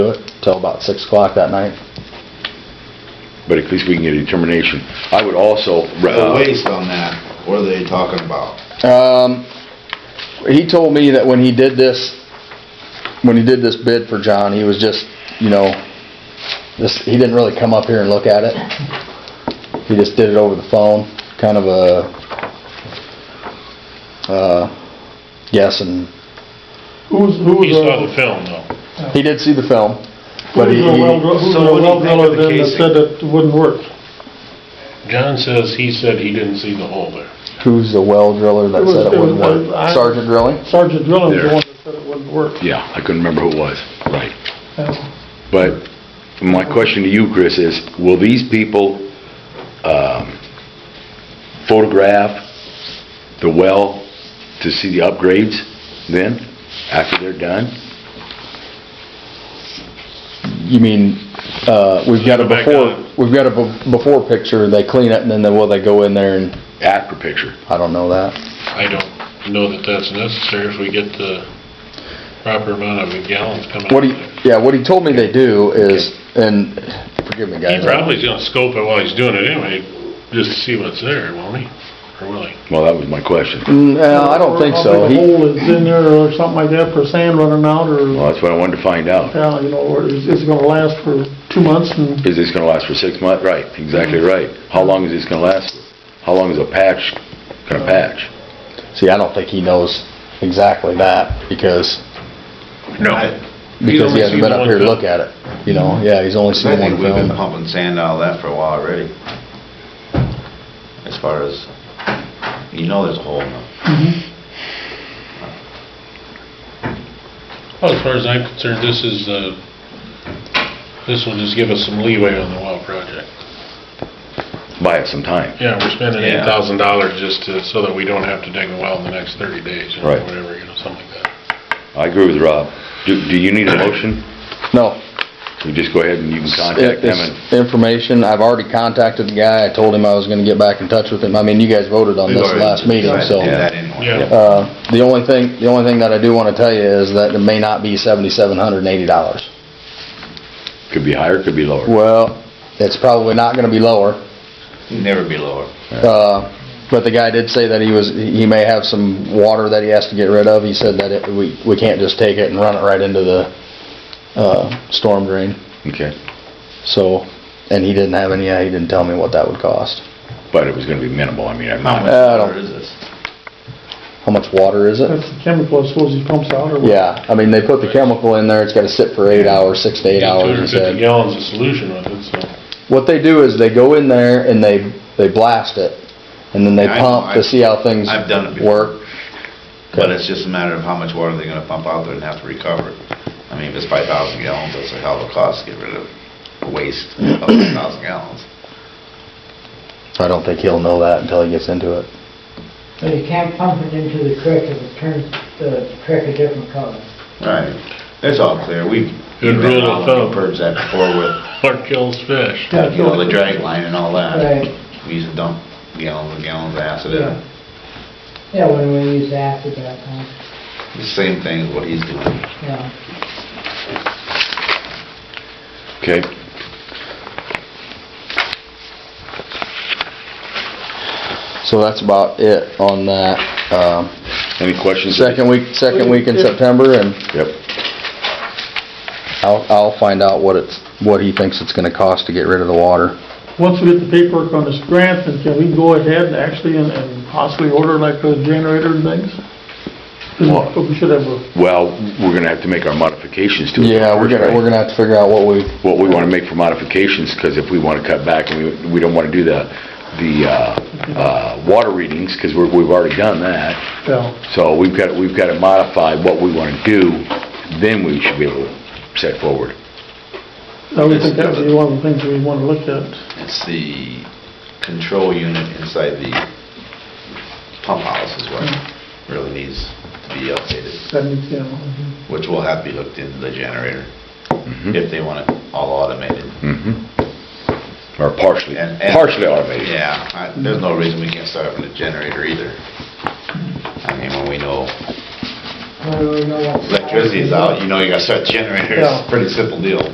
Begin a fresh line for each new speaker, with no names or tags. till about six o'clock that night.
but at least we can get a determination. I would also,
The
uh,
waste on that, what are they talking about?
Um, he told me that when he did this, when he did this bid for John, he was just, you know, this, he didn't really come up here and look at it. He just did it over the phone, kind of a, uh, guess and,
Who's, who
He
was,
saw the
uh,
film, though.
he did see the film,
who
but
was
he,
the
he-
well, who was
So
the
what do you
well
think
driller
of the
then that
casing?
said it wouldn't work?
John says, he said he didn't see the hole there.
who's the well driller that
It was-
said it
it was-
wouldn't work?
I-
Sergeant Drilling?
Sergeant Drilling was the
There.
one that said it wouldn't work.
yeah, I couldn't remember who it was, right.
Yeah.
But my question to you, Chris, is will these people um, photograph the well to see the upgrades then, after they're done?
You mean, uh, we've got a
Go back
before,
on.
we've got a be- before picture, they clean it and then, they- well, they go in there and,
After picture?
I don't know that.
I don't know that that's necessary if we get the proper amount of gallons coming out
What
of
he,
there.
yeah, what he told me they do is, and forgive me,
He
guys.
probably's gonna scope it while he's doing it anyway, just to see what's there, won't he? Or will he?
Well, that was my question.
Mm, No, I don't think so.
Or how big a
He-
hole is in there or something like that for sand running out or,
Well, that's what I wanted to find out.
yeah, you know, or is is it gonna last for two months and
Is this gonna last for six months? Right, exactly right. How long is this gonna last? How long is a patch gonna patch?
See, I don't think he knows exactly that because,
No.
I-
because he hasn't been up here to look at it. You know, yeah, he's only
I
seen one
think we've been
film.
pumping sand out of that for a while already. As far as, you know there's a hole in it.
Well, as far as I'm concerned, this is, uh, this will just give us some leeway on the well project.
Buy it some time.
Yeah, we're spending eight
Yeah.
thousand dollars just to, so that we don't have to dig a well in the next thirty days, or
Right.
whatever, you know, something like that.
I agree with Rob. Do, do you need a motion?
No.
You just go ahead and you can contact them and...
It's Information, I've already contacted the guy. I told him I was gonna get back in touch with him. I mean, you guys voted on this last meeting, so.
Yeah, that didn't work.
Yeah.
Uh, the only thing, the only thing that I do wanna tell you is that it may not be seventy-seven hundred and eighty dollars.
Could be higher, could be lower.
Well, it's probably not gonna be lower.
Never be lower.
Uh, But the guy did say that he was, he may have some water that he has to get rid of. He said that it, we, we can't just take it and run it right into the, uh, storm drain.
Okay.
So, and he didn't have any, he didn't tell me what that would cost.
But it was gonna be minimal, I mean, I'm
How
not,
much
I don't-
lower is this?
How much water is it?
that's the chemical I suppose he pumps out or what?
Yeah, I mean, they put the chemical in there. It's gotta sit for eight hours, six to eight hours, he
Two hundred fifty
said.
gallons of solution with it, so.
What they do is they go in there and they, they blast it and then they
Yeah, I know.
pump to
I've-
see how things
I've done it before.
work.
But it's just a matter of how much water they're gonna pump out there and have to recover. I mean, if it's five thousand gallons, that's a hell of a cost to get rid of waste of five thousand gallons.
I don't think he'll know that until he gets into it.
But you can't pump it into the creek if it turns the creek a different color.
Right. It's all clear. We,
Good
we've
rule
been
of
on
thumb.
purge that before with,
What kills fish?
Yeah,
you know, the drag line and all that.
Right.
We used to dump gallons and gallons of acid in it.
Yeah, when we use acid that time,
The same thing as what he's doing.
yeah.
okay?
So that's about it on that. Um,
Any questions?
Second week, second week in September, and
Yep.
I'll, I'll find out what it's, what he thinks it's gonna cost to get rid of the water.
Once we get the paperwork on this grant, then can we go ahead actually and- and possibly order like a generator and things? 'Cause
Well-
We should have a
Well, we're gonna have to make our modifications to it.
Yeah, we're gonna, we're gonna have to figure out what we,
What we wanna make for modifications, because if we wanna cut back, and we, we don't wanna do the, the, uh, uh, water readings, because we're, we've already done that.
Yeah,
So we've got, we've got to modify what we wanna do, then we should be able to set forward.
I would think that would be one of the things we want to look at.
It's the control unit inside the pump house is what
Hmm.
really needs to be updated,
That needs, you know,
which will have to be hooked into the generator
Mhm.
if they want it all automated.
Mhm. Mm-hmm. Or partially,
And- and-
partially automated.
Yeah, I- there's no reason we can't start up with a generator either. I mean, when we know
When we know what-
electricity is out, you know you gotta start generators.
Yeah.
Pretty simple deal.